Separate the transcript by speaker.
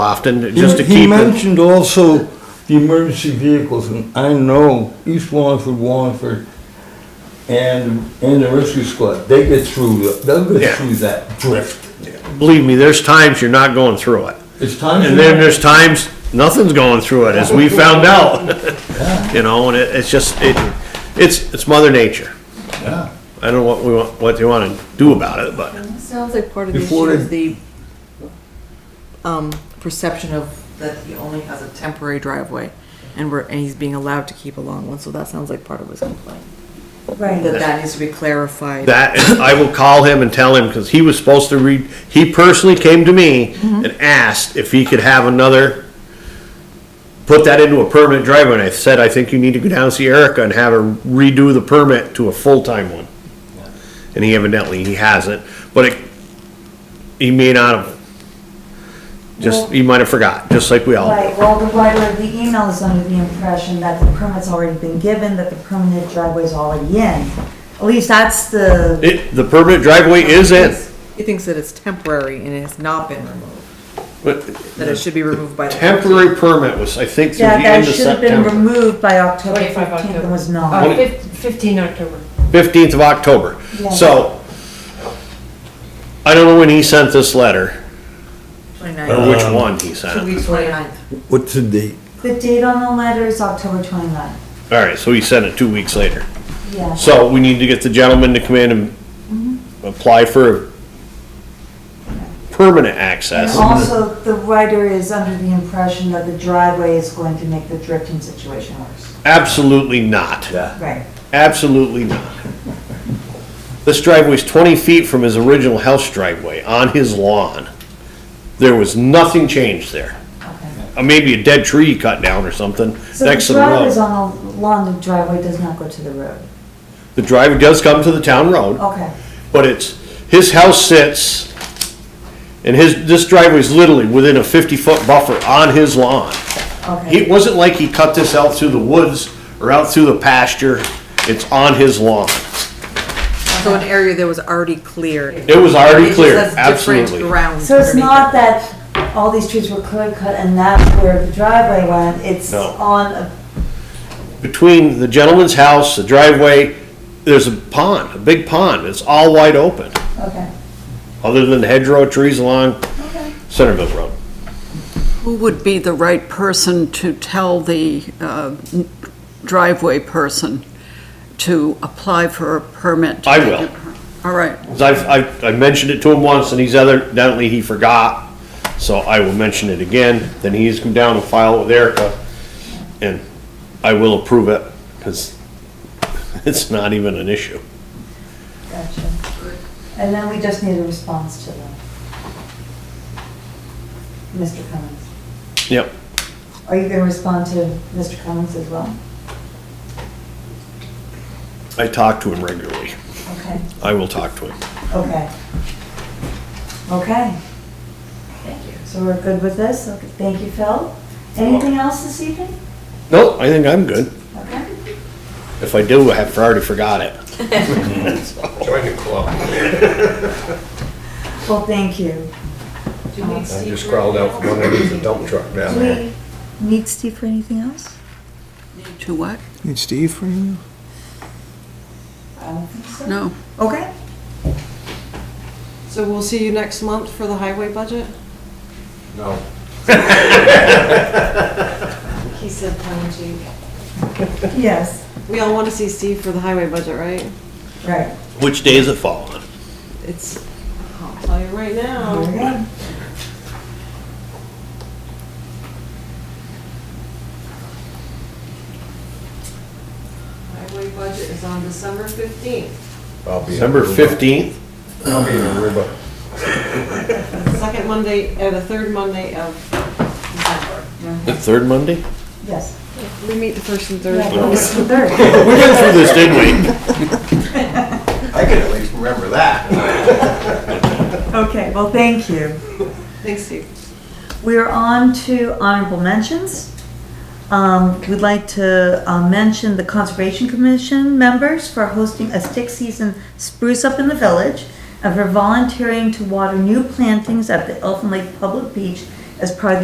Speaker 1: often,
Speaker 2: He-
Speaker 1: just to
Speaker 2: He
Speaker 1: keep it.
Speaker 2: mentioned also the emergency vehicles, and I know East Wallingford, Wallingford, and, and the rescue squad, they get through, they'll
Speaker 1: Yeah.
Speaker 2: get through that drift.
Speaker 1: Believe me, there's times you're not going through it.
Speaker 2: It's time.
Speaker 1: And then there's times, nothing's going through it, as we found out. You know, and it, it's just, it, it's, it's mother nature.
Speaker 2: Yeah.
Speaker 1: I don't know what we want, what they wanna do about it, but
Speaker 3: Sounds like part of the issue
Speaker 2: Before
Speaker 3: is the um, perception of that he only has a temporary driveway and we're, and he's being allowed to keep a long one, so that sounds like part of his complaint. That
Speaker 4: Right,
Speaker 3: that needs to be clarified.
Speaker 1: that, I will call him and tell him, cause he was supposed to read, he personally came to me and asked if he could have another, put that into a permanent driveway, and I said, I think you need to go down and see Erica and have her redo the permit to a full-time one. And he evidently, he hasn't, but it, he may not have, just, he might have forgot, just like we all do.
Speaker 4: right, well, the writer of the email is under the impression that the permit's already been given, that the permanent driveway's already in. At least that's the,
Speaker 1: It, the permanent driveway is in,
Speaker 3: He thinks that it's temporary and it has not been removed,
Speaker 1: but
Speaker 3: that it should be removed by the.
Speaker 1: temporary permit was, I think, through the
Speaker 4: that,
Speaker 1: end
Speaker 4: that
Speaker 1: of
Speaker 4: should have been
Speaker 1: September. Oh.
Speaker 4: removed by October
Speaker 5: 25
Speaker 4: fifteenth
Speaker 5: October.
Speaker 4: and was not.
Speaker 5: Uh, fif- Fifteen October.
Speaker 1: Fifteenth of October,
Speaker 4: Yeah.
Speaker 1: so. I don't know when he sent this letter, or which one he
Speaker 3: Two
Speaker 1: sent.
Speaker 3: weeks later.
Speaker 2: What's the date?
Speaker 4: The date on the letter is October 29th.
Speaker 1: Alright, so he sent it two weeks later.
Speaker 4: Yeah,
Speaker 1: So we need to get the gentleman to come in and
Speaker 4: Mm-hmm.
Speaker 1: apply for permanent access.
Speaker 4: and also, the writer is under the impression that the driveway is going to make the drifting situation worse.
Speaker 1: Absolutely not.
Speaker 2: Yeah.
Speaker 4: Right,
Speaker 1: Absolutely not. This driveway's 20 feet from his original house driveway, on his lawn. There was nothing changed there.
Speaker 4: okay.
Speaker 1: Uh, Maybe a dead tree cut down or something
Speaker 4: So the
Speaker 1: next to the
Speaker 4: driveway's
Speaker 1: road.
Speaker 4: on the lawn, the driveway does not go to the road.
Speaker 1: The driveway does come to the town
Speaker 3: Oh.
Speaker 1: road,
Speaker 4: Okay,
Speaker 1: but it's, his house sits, and his, this driveway's literally within a 50-foot buffer on his lawn. It
Speaker 4: okay,
Speaker 1: wasn't like he cut this out through the woods or out through the pasture. It's on his lawn.
Speaker 3: So an area that was already cleared.
Speaker 1: It was already
Speaker 3: It just
Speaker 1: cleared,
Speaker 3: has different
Speaker 1: absolutely.
Speaker 3: grounds
Speaker 4: so it's
Speaker 3: underneath
Speaker 4: not
Speaker 3: it.
Speaker 4: that all these trees were clear cut and that's where the driveway went, it's
Speaker 1: No.
Speaker 4: on, a-
Speaker 1: between the gentleman's house, the driveway, there's a pond, a big pond, it's all wide open,
Speaker 4: okay.
Speaker 1: other than hedgerow trees along Centerville Road.
Speaker 6: Who would be the right person to tell the uh, driveway person to apply for a permit?
Speaker 1: I will.
Speaker 6: All right,
Speaker 1: 'Cause I've, I've, I mentioned it to him once, and he's other, evidently he forgot, so I will mention it again, then he's come down and file it with Erica, and I will approve it, because it's not even an issue.
Speaker 4: Gotcha. And then we just need a response to them. Mr. Cummings.
Speaker 1: Yep,
Speaker 4: Are you gonna respond to Mr. Cummings as well?
Speaker 1: I talk to him regularly,
Speaker 4: Okay,
Speaker 1: I will talk to him.
Speaker 4: okay. Okay. Thank you. So we're good with this? Okay, thank you, Phil. Anything else this evening?
Speaker 1: No, I think I'm good,
Speaker 4: Okay.
Speaker 1: if I do, I have already forgot it.
Speaker 4: Well, thank you.
Speaker 5: I
Speaker 7: just crawled out from underneath the dump truck down
Speaker 4: Do
Speaker 7: there.
Speaker 4: we need Steve for anything else?
Speaker 6: to what?
Speaker 8: Need Steve for you?
Speaker 4: I don't think so.
Speaker 6: No.
Speaker 4: Okay.
Speaker 5: So we'll see you next month for the highway budget?
Speaker 7: No.
Speaker 5: He said tongue in cheek.
Speaker 4: Yes,
Speaker 5: We all want to see Steve for the highway budget, right?
Speaker 4: right.
Speaker 1: Which day is it fall on?
Speaker 5: It's, I'll tell you right now.
Speaker 4: Okay.
Speaker 5: Highway budget is on December fifteenth,
Speaker 7: I'll be in
Speaker 1: December
Speaker 7: Aruba.
Speaker 1: 15th?
Speaker 7: I'll be in Aruba.
Speaker 5: second Monday, uh, the third Monday of December.
Speaker 1: The third Monday?
Speaker 4: Yes.
Speaker 5: We meet the first and third.
Speaker 4: Yeah, it's the third.
Speaker 1: We went through this, didn't we?
Speaker 7: I can at least remember that.
Speaker 4: Okay, well, thank you.
Speaker 5: Thanks, Steve.
Speaker 4: We are on to honorable mentions. Um, We'd like to uh, mention the Conservation Commission members for hosting a stick season spruce up in the village and for volunteering to water new plantings at the Elfin Lake Public Beach as part of the